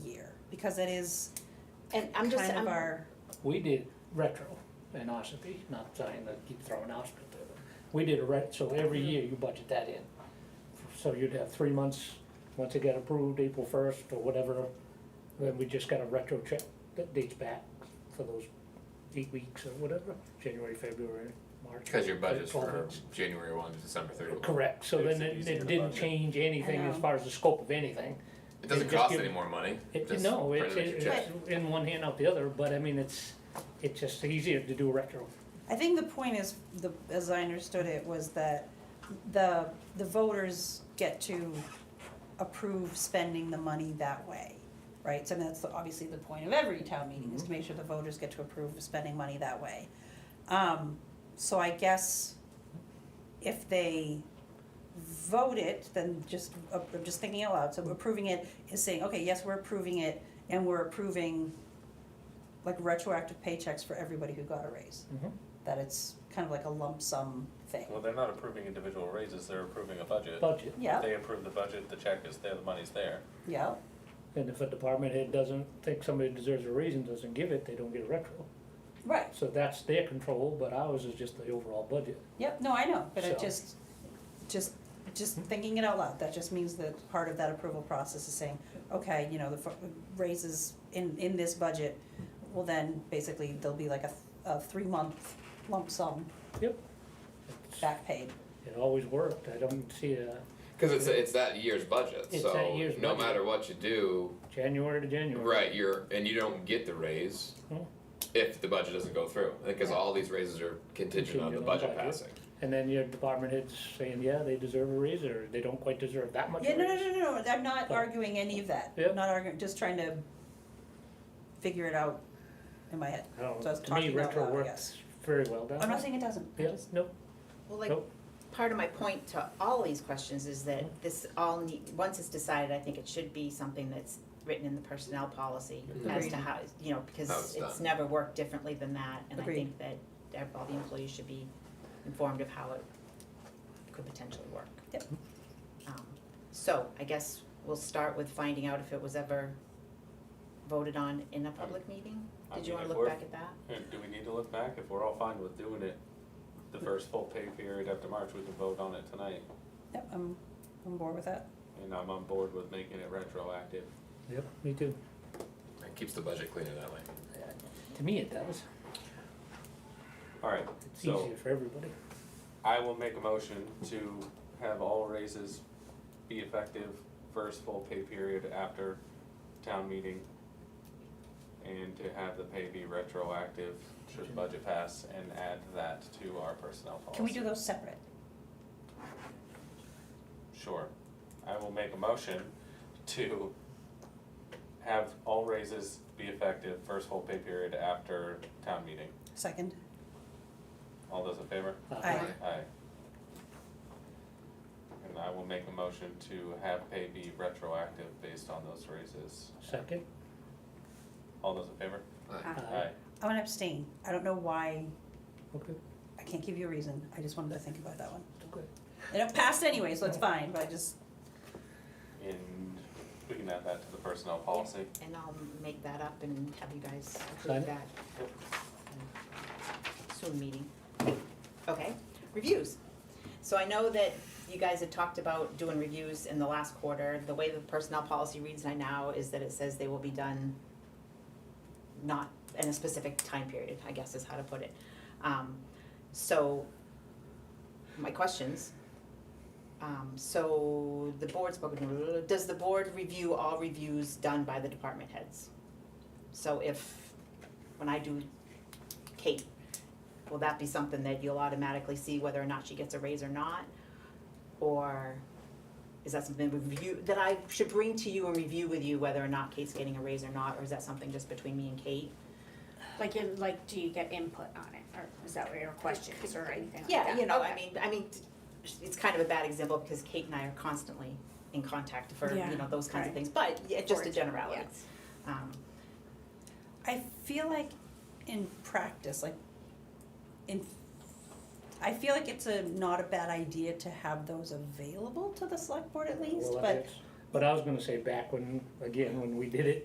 because it is And I'm kind just, of I'm, our, We did retro in Ossipee, not trying to keep throwing Ossipee there, but uh, we did a ret, so every year you budget that in. So you'd have three months, once it got approved, April first or whatever, then we just got a retro check that dates back for those eight weeks or whatever, January, February, March. Because your budget's 12 for months. January one to December thirty one. Correct, so Makes then it it, easier to it didn't budget. change anything as know. far as the scope of anything. It doesn't Just cost give- any more money. It, Just no, print it's, it at your it's check. in one hand out the other, but I mean, it's, it's just easier to do retro. I think the point is, the, as I understood it, was that the, the voters get to approve spending the money that way, right? So that's the- obviously the point of every town meeting, is to make sure the voters get to approve of spending money that way. Um, so I guess if they vote it, then just, uh, I'm just thinking out loud, so approving it is saying, okay, yes, we're approving it, and we're approving like retroactive paychecks for everybody who got a raise Mm-hmm. that it's kind of like a lump sum thing. Well, they're not approving individual raises, they're approving a budget. Budget. Yeah, They approve the budget, the check is there, the money's there. yeah, And if a department head doesn't think somebody deserves a reason, doesn't give it, they don't get a retro. right, So that's their control, but ours is just the overall budget. yep, no, I know, but it So- Hmm? just, just, just thinking it out loud, that just means that part of that approval process is saying, okay, you know, the fu- raises in, in this budget, well then, basically, there'll be like a, a three-month lump sum It's- back paid. It always worked, I don't see a Because it's it's that year's budget, It's so that year's no budget. matter what you do, January to January. right? You're and you don't get the raise Hmm. if the budget doesn't go through. Because Right. all these raises are contingent on Contingent the on budget budget. passing. And then your department head's saying, yeah, they deserve a raise, or they don't quite deserve that much Yeah, raise. no, no, no, no, no, I'm not But- arguing any of that, Yeah. not arguing, just trying to figure it out in my head. I don't So I was know, Um, to me, talking out retro loud, I works guess. very well down I'm not there. saying it doesn't, I Yeah, just- no, well, like, Oh. Nope. part of my point to all these questions is that Mm-hmm. this all need, once it's decided, I think it should be something that's written in the personnel policy as Agreed. to how, you know, Mm-hmm. How because it's it's done. never worked differently than that, and I Agreed. think that ev- all the employees should be informed of how it could potentially work. Yep. Um, So, I guess we'll start with finding out if it was ever voted on in a public meeting? I Did you mean, wanna if look we're- back at that? Uh, Do we need to look back? If we're all fine with doing it the first full pay period after March, we can vote on it tonight. Yep, I'm, I'm bored with that. And I'm on board with making it retroactive. yep, me too. It keeps the budget cleaner that way. To me, it does, All right, it's so easier for everybody. I will make a motion to have all raises be effective first full pay period after town meeting. And to have the pay be retroactive should the budget pass and add that to our personnel policy. Can we do those separate? Sure. I will make a motion to have all raises be effective first full pay period after town meeting. Second? All those in favor? Uh, Aye. Aye. And I will make a motion to have pay be retroactive based on those raises. Second, All those in favor? Aye. aye, I'm gonna abstain. I don't know why, okay, I can't give you a reason. I just wanted to think about that one. okay. And it passed anyway, so it's fine, but I just, And we can add that to the personnel policy. And I'll make that up and have you guys Sign approve it? that. Soon meeting. Okay, reviews. So I know that you guys had talked about doing reviews in the last quarter. The way the personnel policy reads right now is that it says they will be done not in a specific time period, I guess is how to put it. Um, so, my questions. Um, so the board spoke, does the board review all reviews done by the department heads? So if, when I do Kate, will that be something that you'll automatically see whether or not she gets a raise or not? Or is that something we review, that I should bring to you and review with you whether or not Kate's getting a raise or not, or is that something just between me and Kate? Like, in, like, do you get input on it, or is that what your question is, or anything like that? Yeah, you know, I Okay. mean, I mean, it's kind of a bad example because Kate and I are constantly in contact for, Yeah, you know, those kinds of right. things, but yeah, just a For it, Oh, yeah. generality. Um, I feel like in practice, like, in, I feel like it's a, not a bad idea to have those available to the select board at least, Well, but, that's- But I was gonna say, back when, again, when we did it